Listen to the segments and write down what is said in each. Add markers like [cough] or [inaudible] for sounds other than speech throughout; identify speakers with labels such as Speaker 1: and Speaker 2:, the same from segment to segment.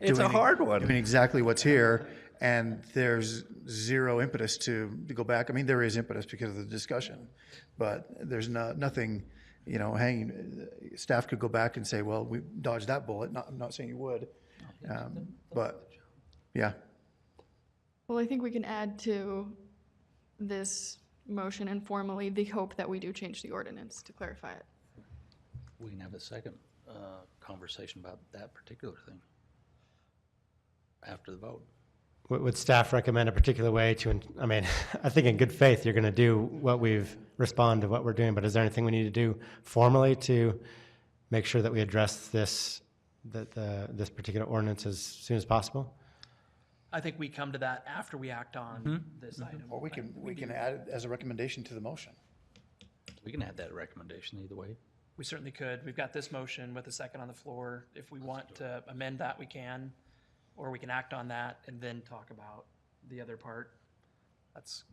Speaker 1: It's a
Speaker 2: doing-
Speaker 1: hard one.
Speaker 2: doing exactly what's here, and there's zero impetus to, to go back. I mean, there is impetus because of the discussion, but there's no, nothing, you know, hanging, staff could go back and say, well, we dodged that bullet, not, I'm not saying you would, um, but, yeah.
Speaker 3: Well, I think we can add to this motion informally the hope that we do change the ordinance to clarify it.
Speaker 4: We can have a second uh, conversation about that particular thing after the vote.
Speaker 5: Would, would staff recommend a particular way to, en- I mean, [laughs] I think in good faith, you're going to do what we've, respond to what we're doing, but is there anything we need to do formally to make sure that we address this, that the, this particular ordinance as soon as possible?
Speaker 6: I think we come to that after we act on this item.
Speaker 2: Or we can, we can add it as a recommendation to the motion.
Speaker 4: We can add that recommendation either way.
Speaker 6: We certainly could. We've got this motion with a second on the floor. If we want to amend that, we can, or we can act on that and then talk about the other part. That's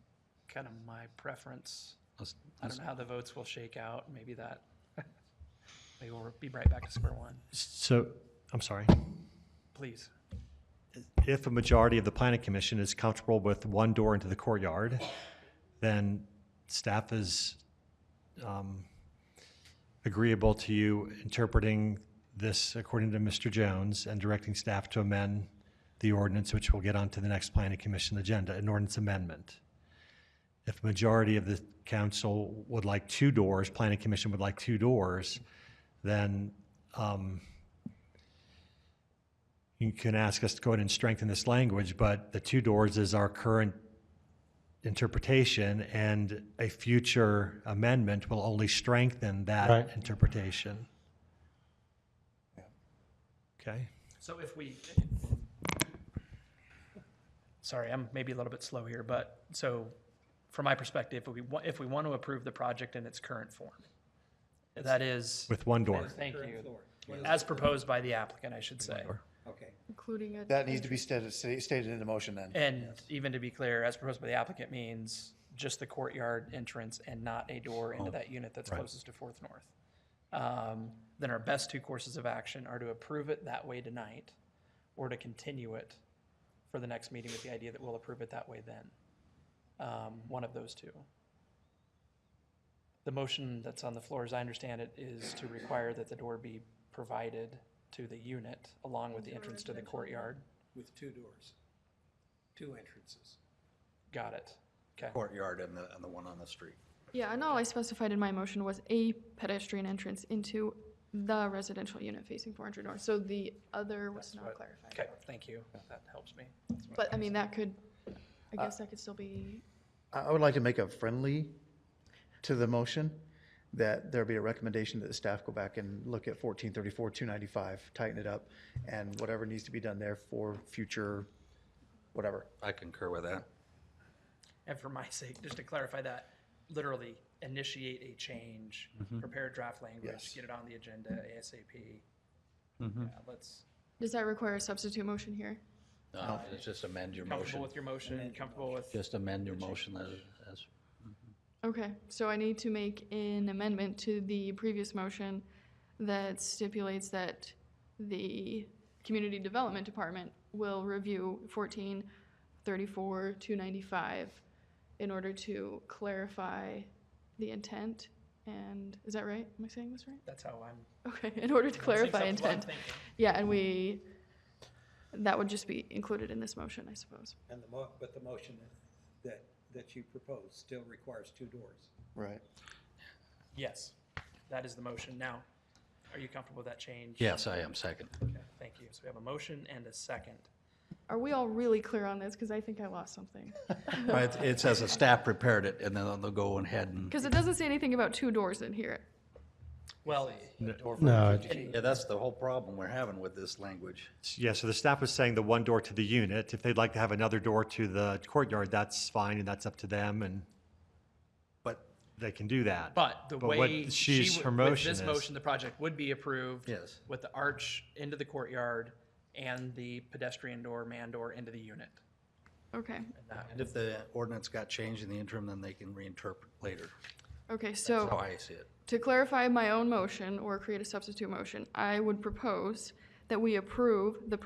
Speaker 6: kind of my preference.
Speaker 4: Let's-
Speaker 6: I don't know how the votes will shake out. Maybe that, [laughs] maybe we'll be right back to square one.
Speaker 7: So, I'm sorry.
Speaker 6: Please.
Speaker 7: If a majority of the planning commission is comfortable with one door into the courtyard, then staff is um, agreeable to you interpreting this according to Mr. Jones and directing staff to amend the ordinance, which will get onto the next planning commission agenda, an ordinance amendment. If a majority of the council would like two doors, planning commission would like two doors, then um, you can ask us to go ahead and strengthen this language, but the two doors is our current interpretation, and a future amendment will only strengthen that
Speaker 5: Right.
Speaker 7: interpretation. Okay?
Speaker 6: So if we, sorry, I'm maybe a little bit slow here, but so from my perspective, if we, wa- if we want to approve the project in its current form, that is,
Speaker 7: With one door.
Speaker 6: thank you, as proposed by the applicant, I should say.
Speaker 3: Including it.
Speaker 2: That needs to be stated, stated in the motion then.
Speaker 6: And even to be clear, as proposed by the applicant means just the courtyard entrance and not a door into that unit that's closest to Fourth North. Um, Then our best two courses of action are to approve it that way tonight, or to continue it for the next meeting with the idea that we'll approve it that way then. Um, One of those two. The motion that's on the floor, as I understand it, is to require that the door be provided to the unit along with the entrance to the courtyard.
Speaker 8: with two doors, two entrances.
Speaker 6: Got it. Okay.
Speaker 4: Courtyard and the, and the one on the street.
Speaker 3: Yeah, and all I specified in my motion was a pedestrian entrance into the residential unit facing 400 North. So the other was not clarified.
Speaker 6: Okay, thank you. That helps me.
Speaker 3: But I mean, that could, I
Speaker 2: Uh,
Speaker 3: guess that could still be,
Speaker 2: I I would like to make a friendly to the motion, that there be a recommendation that the staff go back and look at fourteen thirty-four, two ninety-five, tighten it up, and whatever needs to be done there for future, whatever.
Speaker 4: I concur with that.
Speaker 6: And for my [laughs] sake, just to clarify that, literally initiate a change, prepare draft language,
Speaker 2: Yes.
Speaker 6: get it on the agenda ASAP. Yeah, let's,
Speaker 3: does that require a substitute motion here?
Speaker 4: No, it's just amend your
Speaker 6: comfortable
Speaker 4: motion.
Speaker 6: with your motion, comfortable with,
Speaker 4: Just amend your motion as, as,
Speaker 3: Okay, so I need to make an amendment to the previous motion that stipulates that the Community Development Department will review fourteen thirty-four two ninety-five in order to clarify the intent, and, is that right? Am I saying this right?
Speaker 6: that's how I'm.
Speaker 3: Okay, in order to [laughs] clarify
Speaker 6: that's what I'm
Speaker 3: intent.
Speaker 6: thinking.
Speaker 3: Yeah, and we, that would just be included in this motion, I suppose.
Speaker 8: And the mo, but the motion that, that you propose still requires two doors.
Speaker 2: Right.
Speaker 6: Yes, that is the motion. Now, are you comfortable with that change?
Speaker 4: yes, I am second.
Speaker 6: Okay, Thank you. So we have a motion and a second.
Speaker 3: Are we all really clear on this? Because I think I lost something.
Speaker 4: It, it says the staff prepared it, and then they'll go ahead and,
Speaker 3: Because it doesn't say anything about two doors in here.
Speaker 6: Well,
Speaker 5: No,
Speaker 4: yeah, that's the whole problem we're having with this language.
Speaker 7: Yeah, so the staff was saying the one door to the unit. If they'd like to have another door to the courtyard, that's fine, and that's up to them, and, but they can do that.
Speaker 6: but the
Speaker 7: what
Speaker 6: way she,
Speaker 7: she's, her
Speaker 6: would- with
Speaker 7: motion
Speaker 6: this
Speaker 7: is.
Speaker 6: motion, the project would be approved.
Speaker 4: Yes.
Speaker 6: With the arch into the courtyard and the pedestrian door, man door into the unit.
Speaker 3: Okay,
Speaker 4: And if the ordinance got changed in the interim, then they can reinterpret later.
Speaker 3: okay,
Speaker 4: That's how
Speaker 3: so
Speaker 4: I see it.
Speaker 3: to clarify my own motion or create a substitute motion, I would propose that we approve the